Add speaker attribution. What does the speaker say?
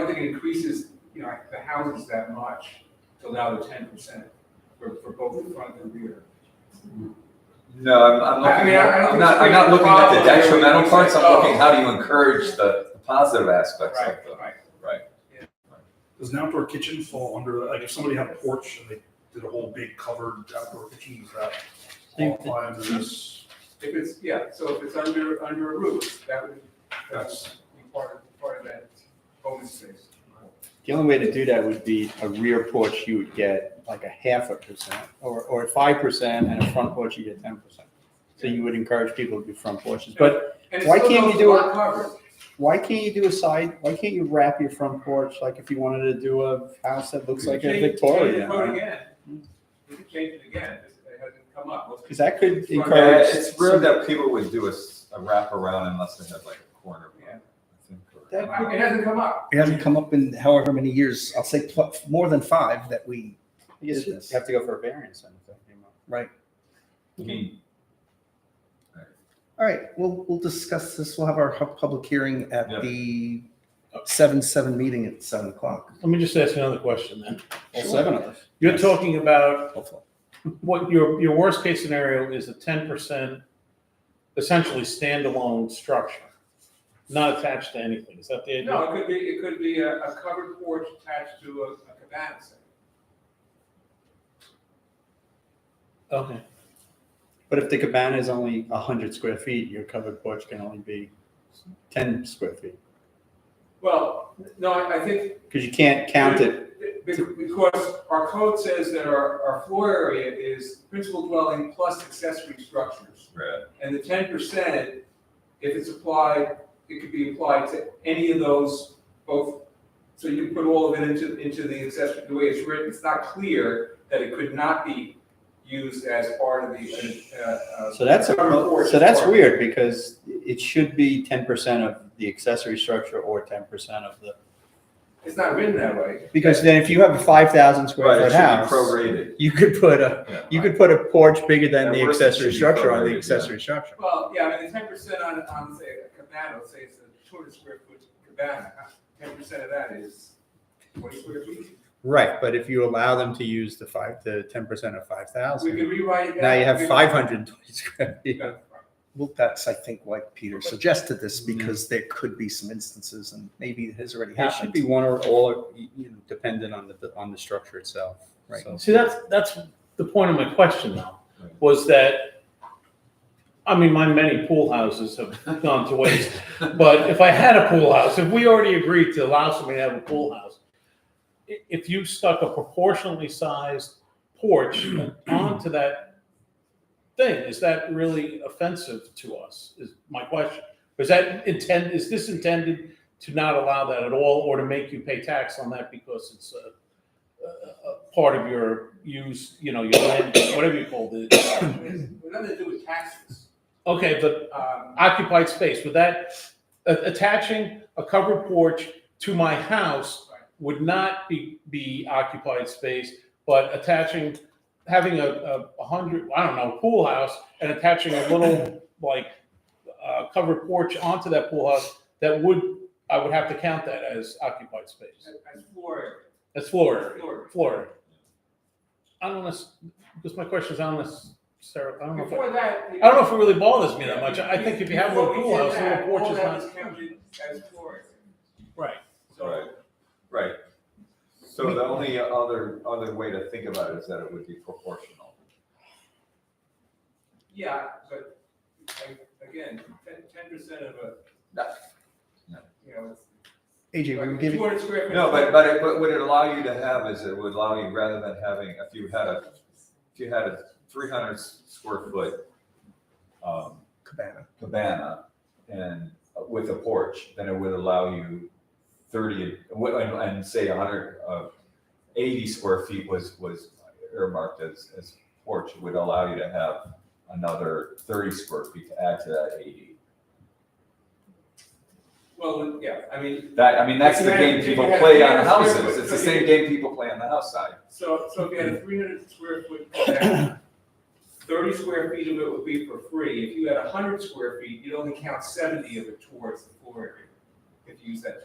Speaker 1: actually increases, you know, the houses that much to allow the ten percent for, for both the front and rear.
Speaker 2: No, I'm, I'm
Speaker 1: I mean,
Speaker 2: looking,
Speaker 1: I- I don't
Speaker 2: I'm not, I'm
Speaker 1: think
Speaker 2: not
Speaker 1: it's
Speaker 2: looking at the
Speaker 1: a problem.
Speaker 2: detrimental parts, I'm
Speaker 1: Oh.
Speaker 2: looking, how do you encourage the the positive aspects of
Speaker 1: Right,
Speaker 2: the,
Speaker 1: right.
Speaker 3: Does an outdoor kitchen fall under, like, if somebody had a porch and they did a whole big covered outdoor kitchen, does that
Speaker 4: Think that-
Speaker 3: qualify under this?
Speaker 1: If it's, yeah, so if it's under, under a roof, that would, that's
Speaker 3: That's-
Speaker 1: part of, part of that open space.
Speaker 4: The only way to do that would be a rear porch, you would get like a half a percent, or, or five percent, and a front porch, you get ten percent. So you would encourage people to do front porches, but
Speaker 1: And it
Speaker 4: Why
Speaker 1: still
Speaker 4: can't we
Speaker 1: goes to
Speaker 4: do
Speaker 1: lot
Speaker 4: it-
Speaker 1: coverage.
Speaker 4: why can't you do a side, why can't you wrap your front porch, like if you wanted to do a house that looks like a
Speaker 1: Change- change the
Speaker 4: Victorian?
Speaker 1: code
Speaker 4: right?
Speaker 1: again. We can change it again, This- it hasn't come up. Let's-
Speaker 4: Cause that
Speaker 1: Yeah,
Speaker 4: could
Speaker 2: Yeah,
Speaker 4: encourage.
Speaker 2: it's rare that people would do a, s- a wraparound unless they had like a corner. one,
Speaker 1: Yeah.
Speaker 2: I think, or-
Speaker 5: That-
Speaker 1: It hasn't come up.
Speaker 5: It hasn't come up in however many years, I'll say pl- more than five that we,
Speaker 4: I guess you have to go for a variance. then, if that came up.
Speaker 2: I mean,
Speaker 5: all right, we'll, we'll discuss this. We'll have our hu- public hearing
Speaker 2: Yeah.
Speaker 5: at the seven, seven meeting at seven o'clock.
Speaker 6: Let me just ask another question then.
Speaker 4: All seven of us.
Speaker 6: You're talking about
Speaker 5: Hopefully.
Speaker 6: what your, your worst case scenario is a ten percent essentially standalone structure, not attached to anything. Is that the idea?
Speaker 1: No, it could be, it could be a, a covered porch attached to a, a cabana set.
Speaker 6: Okay.
Speaker 4: But if the cabana is only a hundred square feet, your covered porch can only be ten square feet,
Speaker 1: Well, no, I I think.
Speaker 4: because you can't count it
Speaker 1: Be- Because our code says that our, our floor area is principal dwelling plus accessory structures.
Speaker 2: Right.
Speaker 1: And the ten percent, if it's applied, it could be applied to any of those both. So you put all of it into, into the accessory, the way it's written, it's not clear that it could not be used as part of the, uh, uh.
Speaker 4: So that's, a-
Speaker 1: covered porch
Speaker 4: so that's
Speaker 1: part.
Speaker 4: weird because it should be ten percent of the accessory structure or ten percent of the,
Speaker 1: It's not written that way.
Speaker 4: because then if you have a five thousand square
Speaker 2: Right, it
Speaker 4: foot
Speaker 2: should be
Speaker 4: house,
Speaker 2: prorated.
Speaker 4: you could put a,
Speaker 2: Yeah.
Speaker 4: you could put a porch bigger than
Speaker 2: At
Speaker 4: the
Speaker 2: worst, it should
Speaker 4: accessory
Speaker 2: be
Speaker 4: structure on
Speaker 2: prorated,
Speaker 4: the
Speaker 2: yeah.
Speaker 4: accessory structure.
Speaker 1: Well, yeah, I mean, the ten percent on, on, say, a cabana, let's say it's a two hundred square foot cabana, ten percent of that is twenty square feet.
Speaker 4: Right, but if you allow them to use the five, the ten percent of five
Speaker 1: We could
Speaker 4: thousand,
Speaker 1: rewrite it.
Speaker 4: now you have
Speaker 1: We-
Speaker 4: five hundred and twenty square feet.
Speaker 1: Yeah.
Speaker 5: Well, that's, I think, why Peter suggested this, because there could be some instances, and maybe it has already
Speaker 4: It should
Speaker 5: happened.
Speaker 4: be one or all, you know, dependent on the, on the structure itself.
Speaker 5: Right.
Speaker 4: So-
Speaker 6: See, that's, that's the point of my question though,
Speaker 2: Right.
Speaker 6: was that, I mean, my many pool houses have gone to waste. But if I had a pool house, if we already agreed to allow somebody to have a pool house, i- if you stuck a proportionally sized porch onto that thing, is that really offensive to us? Is my question. Is that intend, is this intended to not allow that at all or to make you pay tax on that because it's a, a, a part of your use, you know, your land, use, whatever you call it?
Speaker 1: It's Nothing to do with taxes.
Speaker 6: Okay, but
Speaker 1: Um,
Speaker 6: occupied space, would that, a- attaching a covered porch to my house would not be, be occupied space, but attaching, having a, a a hundred, I don't know, pool house and attaching a little, like, uh, covered porch onto that pool house, that would, I would have to count that as occupied space.
Speaker 1: As floor,
Speaker 6: That's floor area.
Speaker 1: floor.
Speaker 6: Florida. I don't know, because my question is, I don't necessarily, I don't know, if I-
Speaker 1: Before that.
Speaker 6: I don't know if it really bothers me that much. I think if you have a little pool house, a little porch
Speaker 1: All
Speaker 6: is
Speaker 1: that was
Speaker 6: not.
Speaker 1: counted as floor.
Speaker 6: Right.
Speaker 1: So,
Speaker 2: Right. So the only other, other way to think about it is that it would be proportional.
Speaker 1: yeah, but like, again, ten, ten percent of a.
Speaker 2: No. No.
Speaker 1: You know, it's
Speaker 5: AJ, we were
Speaker 1: like two
Speaker 5: giving,
Speaker 1: hundred square. feet.
Speaker 2: No, but, but it, but what it allow you to have is it would allow you, rather than having, if you had a, if you had a three hundred square foot, um,
Speaker 5: Cabana.
Speaker 2: cabana and uh, with a porch, then it would allow you thirty, and, and say a hundred, uh, eighty square feet was, was earmarked as, as porch, It would allow you to have another thirty square feet to add to that eighty.
Speaker 1: Well, yeah, I mean,
Speaker 2: That, I mean, that's the game people play on houses, it's the same game people play on the house side.
Speaker 1: So, so if you had a three hundred square foot deck, thirty square feet of it would be for free. If you had hundred square feet, you'd only count seventy of it towards the floor area, if you use that